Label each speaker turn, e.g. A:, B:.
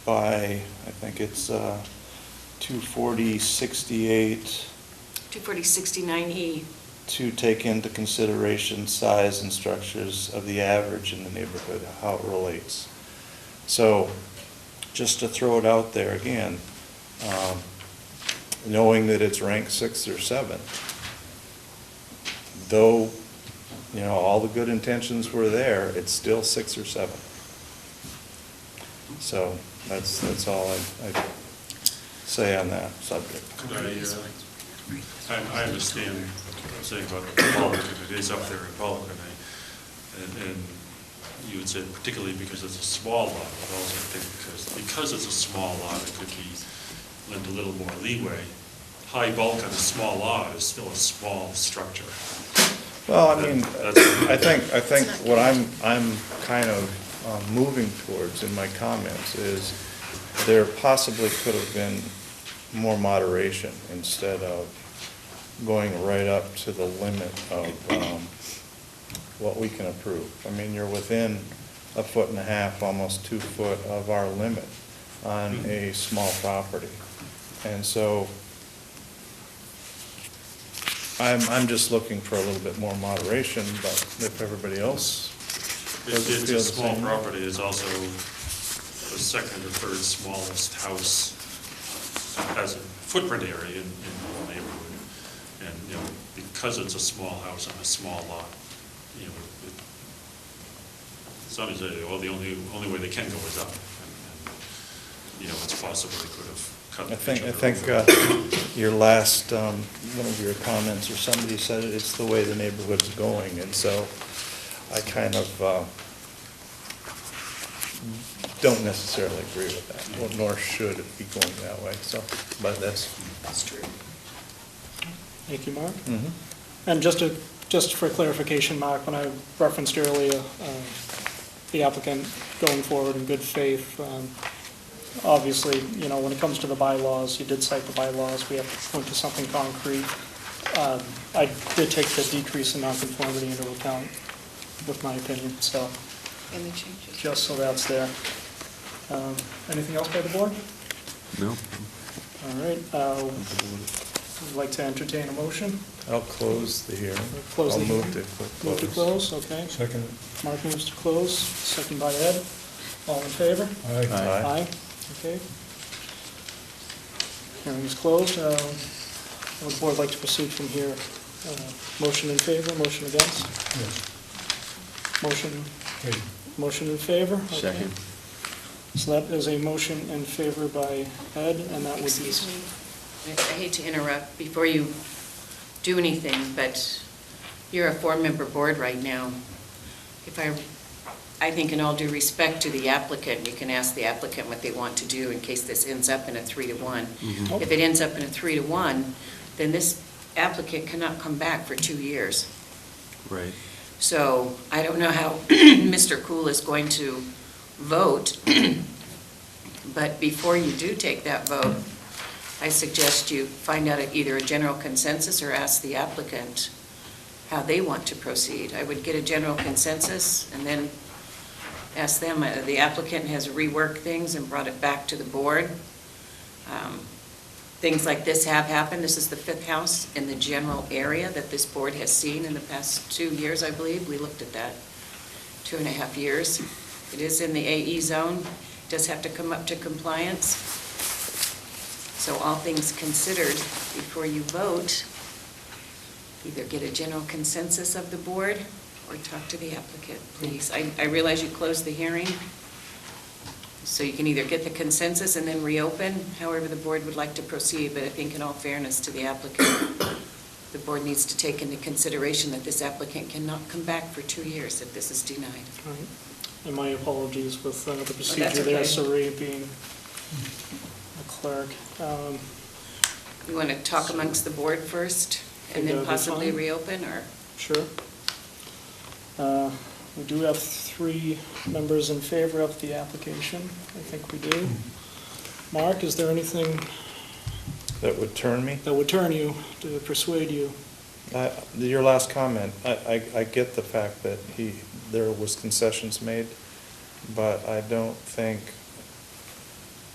A: by, I think it's uh, 24068
B: 24069E.
A: to take into consideration size and structures of the average in the neighborhood, how it relates. So, just to throw it out there again, um, knowing that it's ranked sixth or seventh, though, you know, all the good intentions were there, it's still sixth or seventh. So, that's, that's all I, I say on that subject.
C: Could I, uh, I I understand what I'm saying about Pollock, and it is up there in Pollock, and I, and- and you would say particularly because it's a small lot, but also I think because, because it's a small lot, it could be lent a little more leeway. High bulk on a small lot is still a small structure.
A: Well, I mean,
C: That's-
A: I think, I think what I'm, I'm kind of um, moving towards in my comments is there possibly could have been more moderation instead of going right up to the limit of um, what we can approve. I mean, you're within a foot and a half, almost two foot of our limit on a small property. And so I'm, I'm just looking for a little bit more moderation, but if everybody else
C: It's
A: doesn't
C: it's
A: feel
C: a
A: the
C: small
A: same. way-
C: property, it's also the second or third smallest house as a footprint area in, in the neighborhood. And, you know, because it's a small house on a small lot, you know, it, it's not as if, well, the only, only way they can go is up. And- and, You know, it's possible they could have cut
A: I
C: each
A: think, I
C: other
A: think
C: over.
A: uh, your last, um, one of your comments, or somebody said it, it's the way the neighborhood's going, and so I kind of uh, don't necessarily agree with that, Well, nor should it be going that way, so, but that's.
B: That's true.
D: Thank you, Mark.
A: mm-hmm.
D: And just to, just for clarification, Mark, when I referenced earlier, um, the applicant going forward in good faith, um, obviously, you know, when it comes to the bylaws, you did cite the bylaws, we have to point to something concrete. Um, I did take the decrease in nonconformity into account with my opinion, so
B: And the changes.
D: just so that's there. Um, Anything else by the board?
E: No.
D: All right, uh, would like to entertain a motion?
A: I'll close the hearing.
D: Close the
A: I'll
D: hearing.
A: move to.
D: Move to close, okay.
A: Second.
D: Mark moves to close, second by Ed. All in favor?
A: Aye.
D: Okay. Hearing is closed. Uh, Would the board like to proceed from here? Uh, Motion in favor, motion against? Motion, motion in favor? okay.
E: Second.
D: So that is a motion in favor by Ed, and that would be...
B: Excuse me, I I hate to interrupt before you do anything, but you're a four-member board right now. If I, I think in all due respect to the applicant, you can ask the applicant what they want to do in case this ends up in a three to one.
D: Mm-hmm.
B: If it ends up in a three to one, then this applicant cannot come back for two years.
A: uh,
E: Right.
B: So I don't know how Mr. Cool is going to vote, but before you do take that vote, I suggest you find out either a general consensus or ask the applicant how they want to proceed. I would get a general consensus and then ask them, Uh, the applicant has reworked things and brought it back to the board. Um, Things like this have happened. This is the fifth house in the general area that this board has seen in the past two years, I believe. We looked at that, two and a half years. It is in the AE zone, does have to come up to compliance. So all things considered, before you vote, either get a general consensus of the board or talk to the applicant, please. I, I realize you closed the hearing, so you can either get the consensus and then reopen, however the board would like to proceed, but I think in all fairness to the applicant, the board needs to take into consideration that this applicant cannot come back for two years if this is denied.
D: All right. And my apologies with uh, the procedure
B: Oh, okay.
D: there, Saray being a clerk. Um,
B: You want to talk amongst the board first and
D: Think that would
B: then
D: be
B: possibly
D: fine.
B: reopen, or?
D: Sure. Uh, We do have three members in favor of the application. I think we do. Mark, is there anything
A: That would turn me.
D: that would turn you, to persuade you?
A: I- Your last comment, I, I, I get the fact that he, there was concessions made, but I don't think